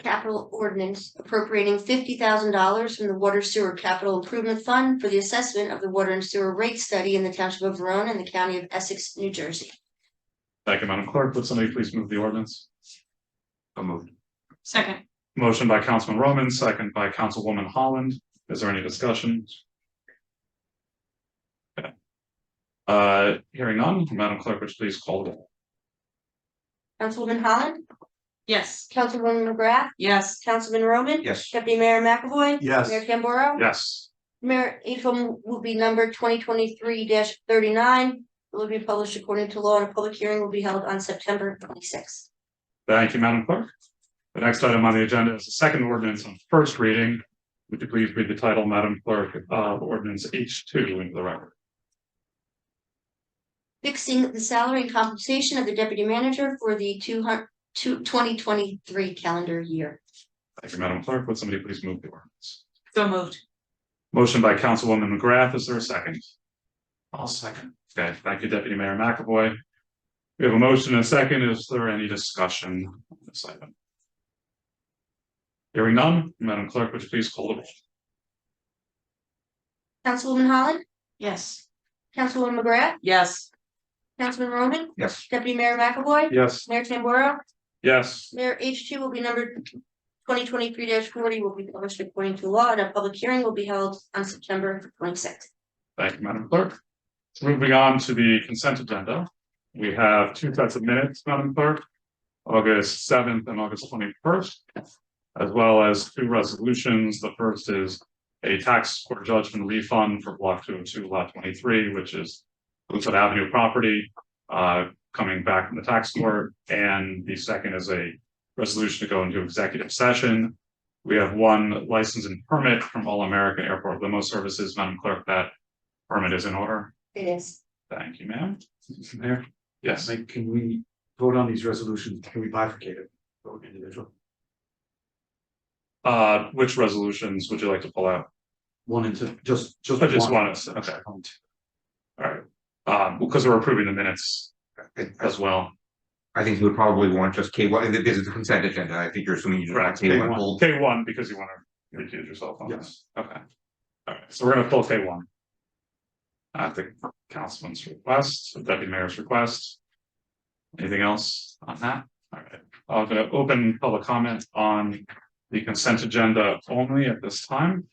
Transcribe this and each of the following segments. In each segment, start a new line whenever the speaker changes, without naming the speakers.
capital ordinance appropriating fifty thousand dollars from the Water Sewer Capital Improvement Fund for the assessment of the water and sewer rate study in the township of Verona and the county of Essex, New Jersey.
Thank you, Madam Clerk. Would somebody please move the ordinance?
So moved.
second,
Motion by Councilman Roman, second by Councilwoman Holland. Is there any discussion? Okay. Uh, hearing none, Madam Clerk, would you please call the roll?
Councilwoman Holland,
yes,
Councilwoman McGrath,
yes,
Councilman Roman.
Yes.
Deputy Mayor McAvoy.
Yes.
Mayor Tamboro.
Yes,
Mayor Ephraim will be numbered twenty twenty-three thirty-nine. It will be published according to law and a public hearing will be held on September twenty-sixth.
thank you, Madam Clerk. The next item on the agenda is the second ordinance on first reading. Would you please read the title, Madam Clerk, of ordinance H two into the record?
Fixing the salary and compensation of the deputy manager for the two hundred two twenty twenty-three calendar year.
Thank you, Madam Clerk. Would somebody please move the ordinance?
so moved,
Motion by Councilwoman McGrath. Is there a second?
I'll second.
Okay, thank you, Deputy Mayor McAvoy. We have a motion and a second. Is there any discussion on this item? Hearing none, Madam Clerk, would you please call the roll?
Councilwoman Holland,
yes,
Councilwoman McGrath,
yes,
Councilman Roman,
Yes.
Deputy Mayor McAvoy,
Yes.
Mayor Tamboro.
Yes,
Mayor H two will be numbered twenty twenty-three forty will be published according to law and a public hearing will be held on September twenty-sixth.
thank you, Madam Clerk. Moving on to the consent agenda. We have two sets of minutes, Madam Clerk. August seventh and August twenty-first. As well as two resolutions. The first is a tax court judgment refund for block two oh two lot twenty-three, which is Woodford Avenue property, uh, coming back from the tax court. And the second is a resolution to go into executive session. We have one license and permit from All American Airport Limo Services. Madam Clerk, that permit is in order.
It is.
Thank you, ma'am.
Mayor,
Yes,
like, can we vote on these resolutions? Can we bifurcate it? Vote individual.
uh, which resolutions would you like to pull out?
One into, just, just.
I just wanted to- okay. Um, because we're approving the minutes as well.
I think you would probably want just K one, this is the consent agenda, I think you're assuming you don't want
Correct.
K one
K1.
hold.
K one, because you want to recuse yourself on this.
Yes.
Okay. All right, so we're gonna pull K one. At the councilman's request, the deputy mayor's request. Anything else on that? All right, I'm gonna open public comment on the consent agenda only at this time.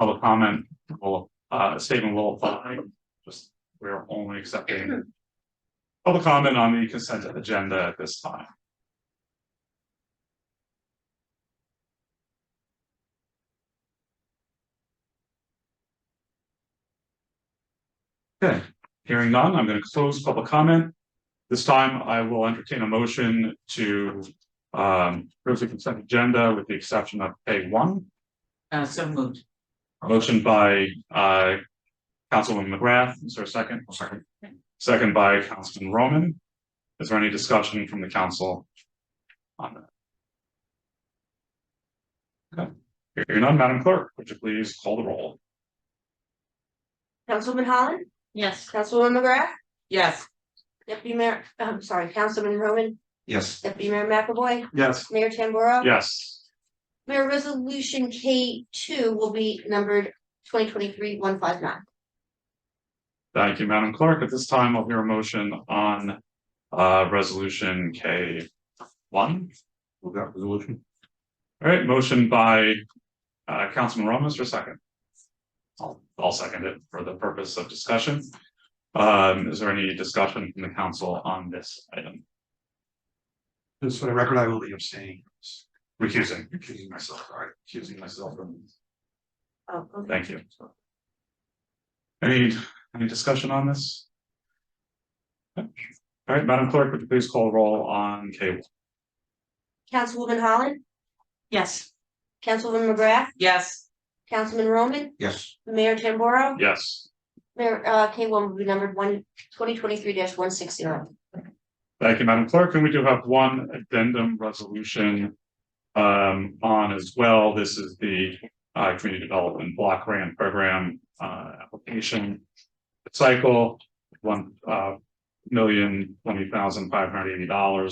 Public comment will, uh, statement will apply, just, we're only accepting. Public comment on the consent agenda at this time. Hearing none, I'm gonna close public comment. This time I will entertain a motion to um approve the consent agenda with the exception of A one.
uh, so moved,
Motion by uh Councilwoman McGrath, is there a second? Second. Second by Councilman Roman. Is there any discussion from the council? On that. Okay, hearing none, Madam Clerk, would you please call the roll?
Councilwoman Holland,
yes,
Councilwoman McGrath,
yes,
Deputy Mayor, I'm sorry, Councilman Roman,
Yes.
Deputy Mayor McAvoy,
Yes.
Mayor Tamboro.
Yes.
Mayor Resolution K two will be numbered twenty twenty-three one five nine.
Thank you, Madam Clerk. At this time, I'll hear a motion on uh resolution K one.
Move that resolution.
All right, motion by uh Councilman Ramos for second. I'll I'll second it for the purpose of discussion. Um, is there any discussion from the council on this item?
Just for the record, I will be abstaining.
Recusing.
Accusing myself, all right, accusing myself from.
Oh, okay.
Thank you. Any any discussion on this? All right, Madam Clerk, would you please call roll on K one?
Councilwoman Holland,
yes,
Councilwoman McGrath,
yes,
Councilman Roman,
Yes,
Mayor Tamboro.
Yes.
Mayor, uh, K one will be numbered one, twenty twenty-three one six zero.
Thank you, Madam Clerk, and we do have one addendum resolution um, on as well. This is the uh, Community Development Block Grant Program uh, application cycle, one uh, million twenty thousand five hundred eighty dollars